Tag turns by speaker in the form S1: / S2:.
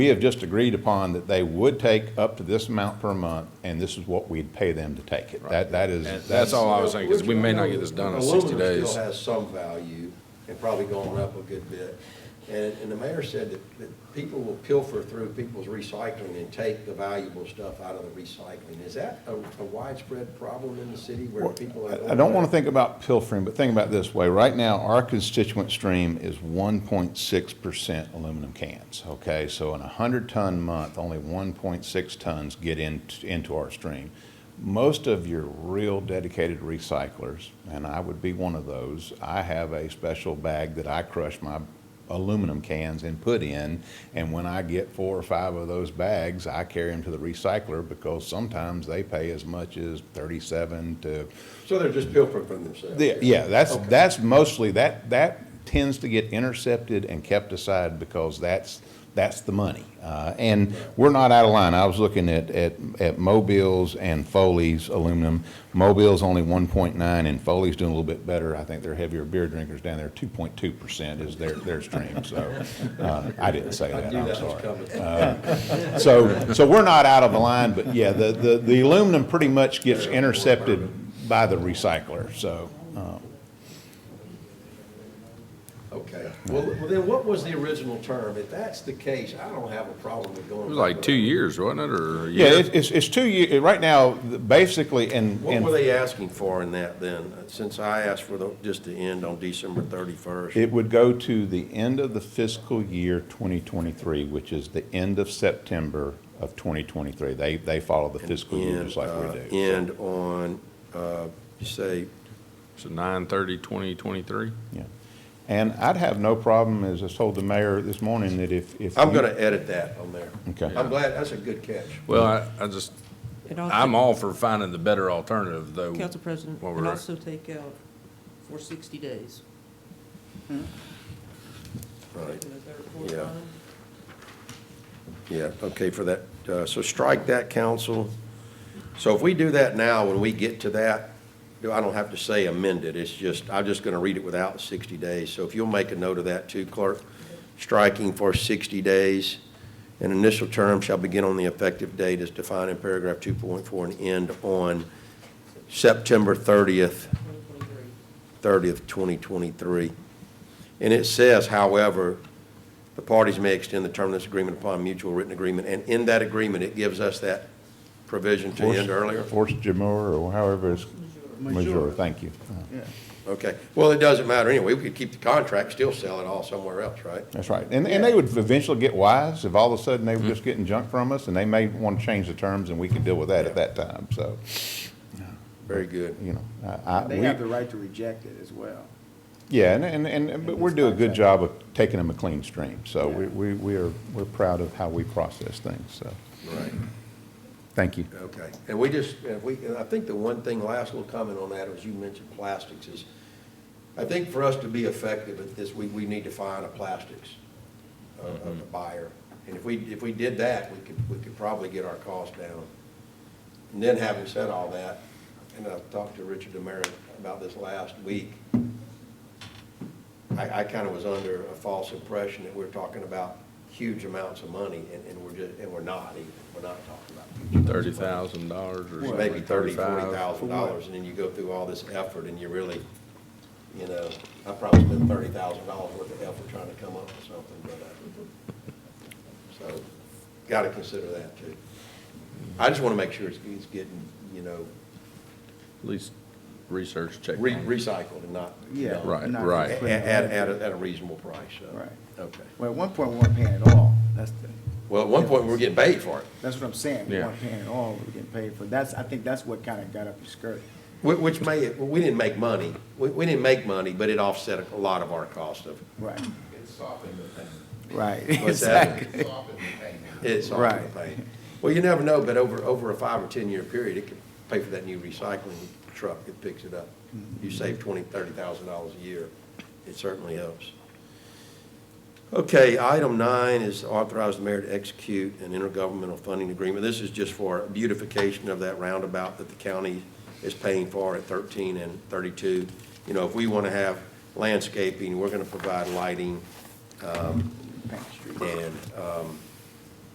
S1: We have just agreed upon that they would take up to this amount per month, and this is what we'd pay them to take it. That, that is,
S2: And that's all I was saying, because we may not get this done in sixty
S3: Aluminum
S2: days.
S3: still has some value, and probably gone up a good bit. And, and the mayor said that, that people will pilfer through people's recycling and take the valuable stuff out of the recycling. Is that a, a widespread problem in the city where people are?
S1: I I don't want to think about pilfering, but think about it this way. Right now, our constituent stream is 1.6% aluminum cans, okay? So in a 100-ton month, only 1.6 tons get in- into our stream. Most of your real dedicated recyclers, and I would be one of those, I have a special bag that I crush my aluminum cans and put in. And when I get four or five of those bags, I carry them to the recycler because sometimes they pay as much as 37 to
S3: So they're just pilfering from themselves?
S1: yeah, yeah, that's, that's mostly, that, that tends to get intercepted and kept aside because that's, that's the money. Uh, And we're not out of line. I was looking at, at, at Mobile's and Foley's aluminum. Mobile's only one point nine and Foley's doing a little bit better. I think they're heavier beer drinkers down there. Two point two percent is their, their stream, so, uh, I didn't say
S3: I
S1: that,
S3: knew
S1: I'm
S3: that was
S1: sorry. Uh,
S3: coming.
S1: So, so we're not out of the line, but yeah, the, the, the aluminum pretty much gets intercepted by the recycler, so. uh,
S3: Okay, well, well, then what was the original term? If that's the case, I don't have a problem with going.
S2: It was like two years, wasn't it, or a
S1: Yeah,
S2: year?
S1: it's, it's- it's two years right now, the- basically, and,
S3: What were
S1: and
S3: they asking for in that then, since I asked for the, just to end on December thirty-first?
S1: it would go to the end of the fiscal year 2023, which is the end of September of 2023. They, they follow the fiscal year just like
S3: uh,
S1: we do.
S3: And on, uh, you say,
S2: So nine thirty, twenty twenty-three?
S1: Yeah. And I'd have no problem, as I told the mayor this morning, that if, if.
S3: I'm
S1: you-
S3: gonna edit that on there.
S1: Okay.
S3: I'm glad, that's a good catch.
S2: Well, I, I just,
S4: And also-
S2: I'm all for finding the better alternative, though.
S4: Council President,
S2: While
S4: and
S2: we're-
S4: also take out for 60 days.
S3: Right,
S4: Is that report
S3: Yeah.
S4: on?
S3: yeah, okay, for that, uh, so strike that, council. So if we do that now, when we get to that, do- I don't have to say amend it, it's just, I'm just gonna read it without sixty days. So if you'll make a note of that too, clerk, striking for sixty days. An initial term shall begin on the effective date as defined in paragraph two point four and end on September thirtieth,
S4: 2023.
S3: thirtieth, twenty twenty-three. And it says, however, the parties may extend the term of this agreement upon mutual written agreement, and in that agreement, it gives us that provision to
S1: Force-
S3: end earlier?
S1: Force Jamur or however it's. Major, thank you. Uh,
S3: Okay, well, it doesn't matter anyway, we could keep the contract, still sell it all somewhere else, right?
S1: That's right. And, and they would eventually get wise if all of a sudden they were
S3: Mm-hmm.
S1: just getting junk from us and they may want to change the terms and we can deal with that at that time, so.
S3: Very good.
S1: you know, I, I,
S5: They have the
S1: Uh, we,
S5: right to reject it as well.
S1: yeah, and, and, and, and- but we
S5: it's
S1: do a good
S5: contract.
S1: job of taking them a clean stream, so
S5: Yeah.
S1: we, we, we are, we're proud of how we process things, so,
S3: Right.
S1: thank you.
S3: Okay, and we just, and we, and I think the one thing, last little comment on that, was you mentioned plastics, is, I think for us to be effective at this, we, we need to find a plastics, uh, uh, buyer. And if we, if we did that, we could, we could probably get our costs down. And then having said all that, and I talked to Richard Demerit about this last week, I, I kind of was under a false impression that we're talking about huge amounts of money, and, and we're just, and we're not even, we're not talking about huge amounts of money
S2: Thirty thousand dollars or
S3: or
S2: something.
S3: maybe thirty, forty
S2: 35.
S3: thousand dollars, and then you go through all this effort and you really, you know, I probably spent thirty thousand dollars worth of effort trying to come up with something, but, uh, so, gotta consider that too. I just wanna make sure it's, it's getting, you know,
S2: At least research check.
S3: re- recycled and not, you
S5: Yeah.
S3: know,
S2: Right,
S5: not
S2: right.
S5: just
S3: At,
S5: put it
S3: at,
S5: in.
S3: at a- at a reasonable price, so.
S5: Right.
S3: Okay.
S5: Well, at one point, we weren't paying at all. That's the,
S3: Well, at one point, we were getting paid for it,
S5: that's what I'm saying. We
S2: Yeah.
S5: weren't paying at all. We were getting paid for. That's, I think that's what kind of got up your skirt.
S3: whi- which may, we didn't make money. We, we didn't make money, but it offset a lot of our cost of,
S5: Right,
S6: It's softened the pain.
S5: right.
S3: What's that?
S5: Exactly.
S6: It's softened the pain.
S3: It's all
S5: Right.
S3: paid. Well, you never know, but over, over a five or 10-year period, it could pay for that new recycling truck that picks it up. You
S5: Mm-hmm.
S3: save twenty, thirty thousand dollars a year. It certainly helps. Okay, item nine is authorize the mayor to execute an intergovernmental funding agreement. This is just for beautification of that roundabout that the county is paying for at 13 and 32. You know, if we want to have landscaping, we're going to provide lighting
S5: Paint the street.
S3: um, and um,